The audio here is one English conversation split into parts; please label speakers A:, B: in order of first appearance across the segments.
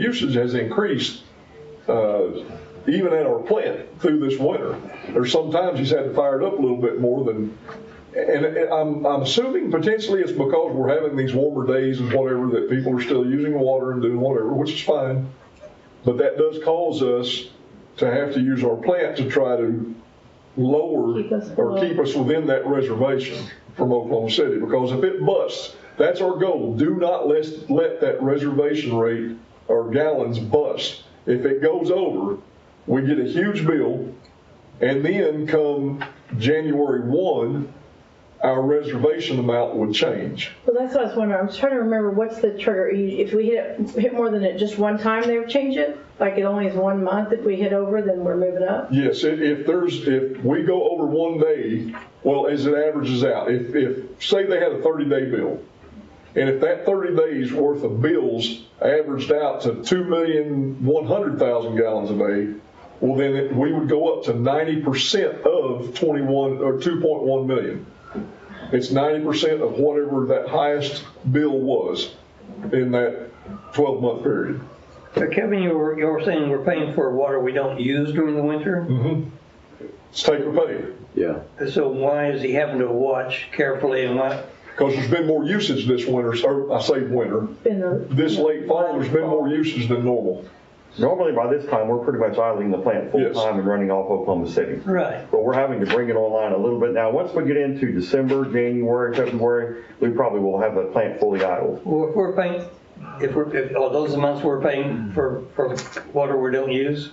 A: usage has increased, uh, even at our plant through this winter. There's sometimes he's had to fire it up a little bit more than, and and I'm, I'm assuming potentially it's because we're having these warmer days and whatever, that people are still using water and doing whatever, which is fine. But that does cause us to have to use our plant to try to lower
B: Keep us
A: or
B: below.
A: keep us within that reservation from Oklahoma City, because if it busts, that's our goal. Do not let, let that reservation rate or gallons bust. If it goes over, we get a huge bill, and then come January one, our reservation amount would change.
B: Well, that's what I was wondering. I was trying to remember what's the trigger. You- If we hit, it- hit more than it just one time, they would change it? Like it only is one month. If we hit over, then we're moving up?
A: Yes, if, if there's, if we go over one day, well, as it averages out, if, if, say they had a thirty-day bill, and if that thirty days worth of bills averaged out to two million, one hundred thousand gallons a day, well, then it- we would go up to ninety percent of twenty-one, or two point one million. It's ninety percent of whatever that highest bill was in that twelve-month period.
C: So Uh, Kevin, you were, you were saying we're paying for water we don't use during the winter?
A: It's take or pay.
D: Yeah,
C: So why is he having to watch carefully and what?
A: Because there's been more usage this winter, or I say winter,
B: Been the-
A: this late fall, there's been more usage than normal.
E: Normally by this time, we're pretty much idling the plant full
A: Yes.
E: time and running off Oklahoma City.
C: Right.
E: But we're having to bring it online a little bit now. Once we get into December, January, February, we probably will have the plant fully idled.
C: Well, if we're paying, if we're, if all those amounts we're paying for, for water we don't use?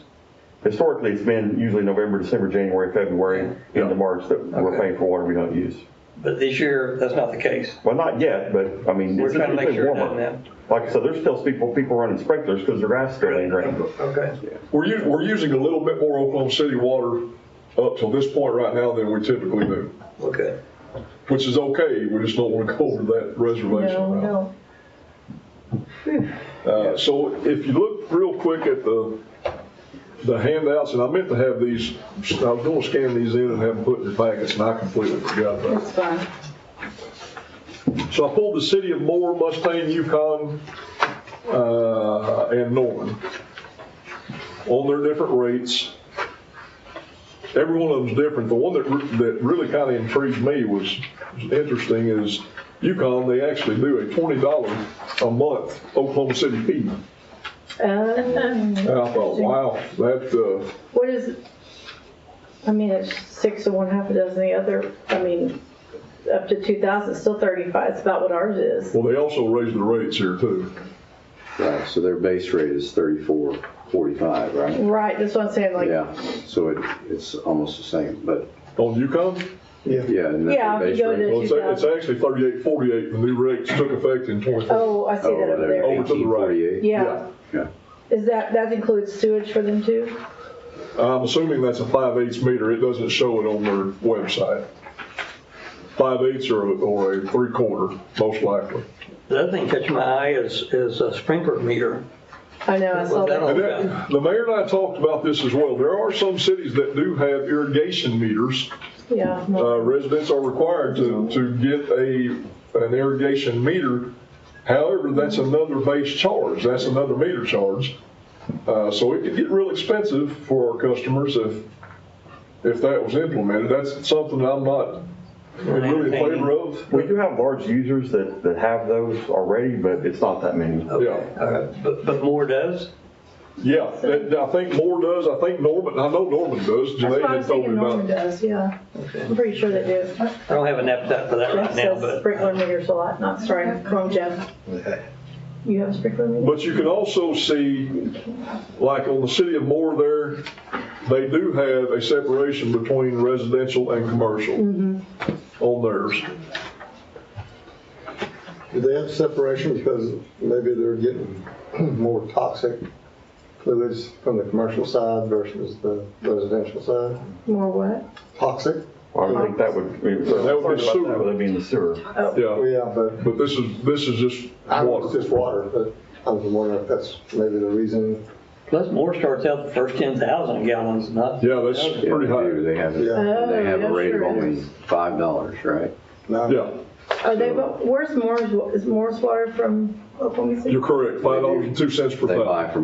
E: Historically, it's been usually November, December, January, February,
D: Yeah.
E: into March that we're
C: Okay.
E: paying for water we don't use.
C: But this year, that's not the case.
E: Well, not yet, but I mean,
C: We're
E: it's
C: trying to make
E: it's been
C: sure it doesn't
E: warmer.
C: happen.
E: Like I said, there's still people, people running sprinklers because their grass still ain't drained.
C: Okay.
A: We're us, we're using a little bit more Oklahoma City water up till this point right now than we typically do,
C: Okay.
A: which is okay, we just don't want to go over that reservation
B: No,
A: amount.
B: no.
A: Uh, So if you look real quick at the, the handouts, and I meant to have these, I was gonna scan these in and have them put in your packets, and I completely forgot that.
B: It's fine.
A: So I pulled the city of Moore, Mustang, Yukon, uh, and Norman on their different rates. Every one of them's different. The one that, re- that really kind of intrigued me was, was interesting is Yukon, they actually do a twenty dollar a month Oklahoma City fee.
B: Um,
A: And I thought, wow, that, uh,
B: What is, I mean, it's six of one, half a dozen of the other. I mean, up to 2,000, it's still 35. It's about what ours is.
A: well, they also raised the rates here too.
D: right, so their base rate is thirty-four forty-five, right?
B: Right, that's what I'm saying, Mm. like,
D: Yeah, so it, it's almost the same, but,
A: On Yukon,
D: yeah. and that
B: Yeah,
D: base
B: you go
D: rate-
B: to-
A: well, it's, a- it's actually thirty-eight, forty-eight, the new rates took effect in twenty-four.
B: oh, I see
D: Oh,
B: that over there.
A: Over to the right.
D: 1848?
B: Yeah.
D: Yeah.
B: Is that, that includes sewage for them too?
A: I'm assuming that's a five eighths meter, it doesn't show it on their website. Five eighths or, or a three quarter, most likely.
C: The other thing catching my eye is, is a sprinkler meter.
B: I know, I saw
C: Well,
B: that.
C: that'll-
A: And that, the mayor and I talked about this as well, there are some cities that do have irrigation meters.
B: Yeah.
A: Uh,
D: Oh,
A: residents are required to, to get a, an irrigation meter. However, that's another base charge, that's another meter charge. Uh, so it could get real expensive for our customers if, if that was implemented, that's something I'm not really in favor of.
E: We do have large users that, that have those already, but it's not that many.
C: Okay,
A: Yeah.
C: all right. Uh, But, but Moore does?
A: Yeah, that- I think Moore does, I think Norman, I know Norman does,
B: That's
A: Janae
B: what I
A: had
B: was
A: told
B: thinking
A: me
B: Norman
A: about. it.
B: does, yeah.
C: Okay.
B: I'm pretty sure they do.
C: I don't have an appetite for that
B: Jeff
C: right now,
B: says
C: but.
B: sprinkler meters a lot, not, sorry, wrong Jeff. You have a sprinkler meter?
A: But you can also see, like on the city of Moore there, they do have a separation between residential and commercial
B: Mm-hmm.
A: on theirs.
F: Do they have separation because maybe they're getting more toxic fluids from the commercial side versus the residential side?
B: More what?
F: Toxic?
E: I would think that would, be-
A: That would be
E: Sorry about
A: sewer.
E: that, but that'd be in the sewer.
A: Yeah,
F: Yeah, but
A: but this is, this is just
F: I know it's
A: water.
F: just water, but I was wondering if that's maybe the reason.
C: Plus Moore starts out the first 10,000 gallons, not.
A: Yeah, that's
D: Yeah,
A: pretty
D: they do.
A: high.
D: They have,
F: Yeah.
D: they have
B: Oh,
D: a
B: yeah,
D: rate of
B: sure
D: only
B: is.
D: five dollars, right?
F: No.
A: Yeah,
B: Oh, Are they, bo- where's Moore's, wa- is Moore's water from Oklahoma City.
A: You're correct, five dollars and two cents per
D: They
A: thousand.
D: buy from